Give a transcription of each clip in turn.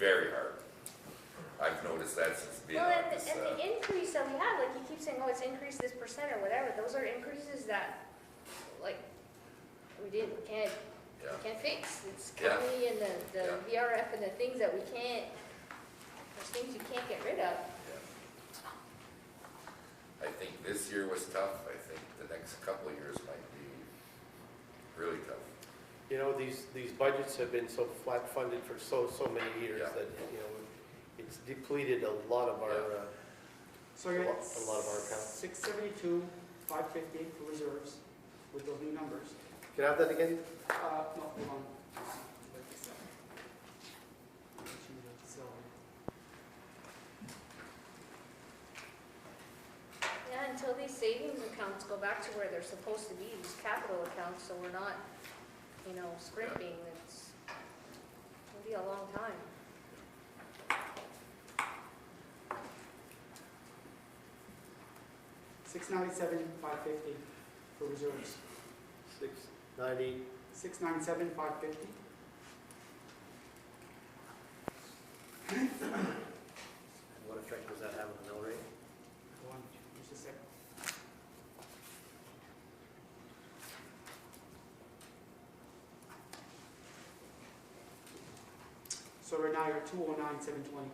very hard. I've noticed that since being Well, on and, this, the- and uh, the increase that we had, like you keep saying, oh, it's increased this percent or whatever, those are increases that, like, we didn't, we can't, yeah. we can't fix. It's Yeah. county and the, the VRF and the things that we can't, those things you can't get rid of. Yeah. I think this year was tough, I think the next couple of years might be really tough. You know, these, these budgets have been so flat funded for so, so many years Yeah. that, you know, it's depleted a lot of our, uh, So you're A lot- at a lot of our accounts. six seventy-two, five fifty for reserves with those new numbers. can I have that again? Uh, no, hold on. So, Yeah, until these savings accounts go back to where they're supposed to be, these capital accounts, so we're not, you know, scrimping, it's, it'll be a long time. six ninety-seven, five fifty for reserves. Six ninety, Six ninety-seven, five fifty. what effect does that have on the mill rate? Hold on, just a sec. So right now you're two oh nine, seven twenty.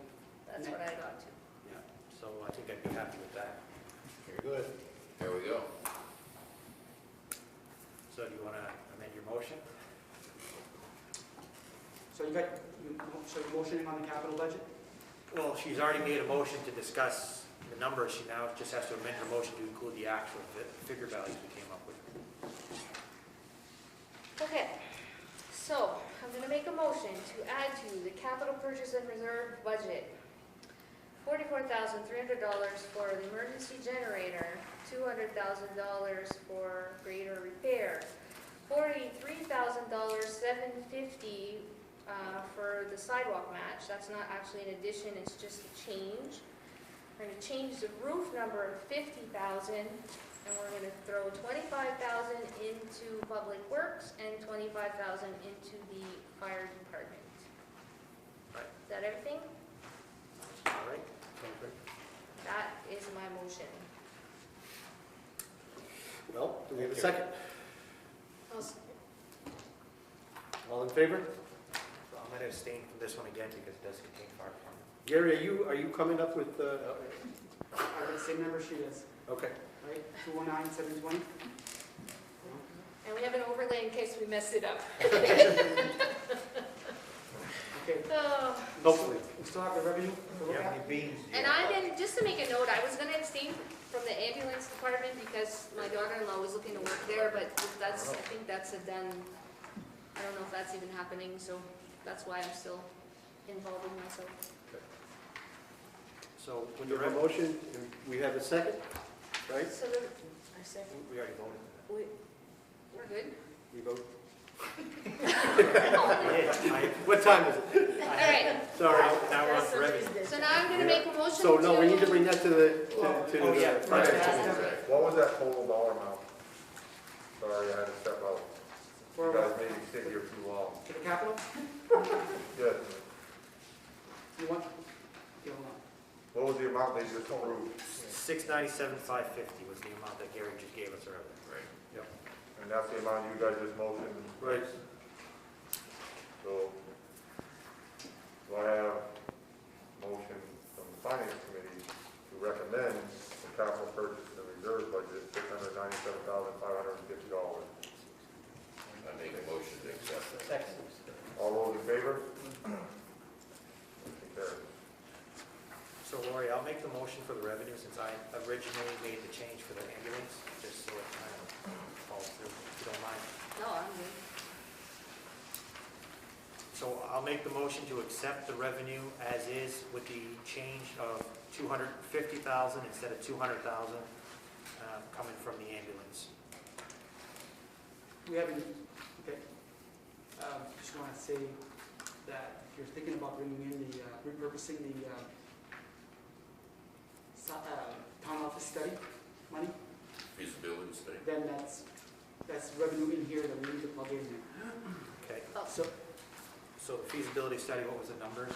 That's what I got to. Yeah, so I think I'd be happy with that. Very good. There we go. So do you want to amend your motion? So you got, you- so you're motioning on the capital budget? Well, she's already made a motion to discuss the numbers, she now just has to amend her motion to include the actual fi- figure values we came up with. Okay, so I'm gonna make a motion to add to the capital purchase and reserve budget forty-four thousand three hundred dollars for the emergency generator, two hundred thousand dollars for greater repair, forty-three thousand dollars, seven fifty, uh, for the sidewalk match, that's not actually an addition, it's just a change. We're gonna change the roof number of fifty thousand and we're gonna throw twenty-five thousand into public works and twenty-five thousand into the fire department. Right. Is that everything? All right? That is my motion. Well, do we have a second? I'll s- All in favor? I'm going to abstain from this one again because it does contain fire department. Gary, are you, are you coming up with, uh, I got the same number she does, okay. right? Two oh nine, seven twenty? And we have an overlay in case we mess it up. Okay, Oh, Hopefully. we still have the revenue to look at? beans? And I didn't, just to make a note, I was gonna abstain from the ambulance department because my daughter-in-law was looking to work there, but that's, I think that's a done. I don't know if that's even happening, so that's why I'm still involving myself. So when you have a motion, we have a second, right? So the, I second. We already voted. We, we're good? We vote. All What time is it? right, Sorry, now we're on for revenue. so now I'm gonna make a motion to. So no, we need to bring that to the, to- to Oh, yeah. the Right. finance committee. Right. What was that total dollar amount? Sorry, I had to step out. You For, guys for made me sit here too long. the capital? Yes. You want? Okay, hold on. What was the amount they just approved? Six ninety-seven, five fifty was the amount that Gary just gave us earlier. Right. And that's the amount you guys just motioned, Right. so. Do I have a motion from the finance committee to recommend the capital purchase and reserve budget, six hundred ninety-seven thousand, five hundred and fifty dollars? I make a motion to accept that. Second. All those in favor? Motion carries. So Lori, I'll make the motion for the revenue since I originally made the change for the ambulance, just so it kind of falls through, if you don't mind. No, I'm good. So I'll make the motion to accept the revenue as is with the change of 250,000 instead of 200,000 uh, coming from the ambulance. We haven't, okay. Um, Just want to say that if you're thinking about bringing in the, uh, repurposing the uh, so- uh, town office study money, Feasibility study. then that's, that's revenue in here that we need to plug in. Okay, Oh, So so the feasibility study, what was the number?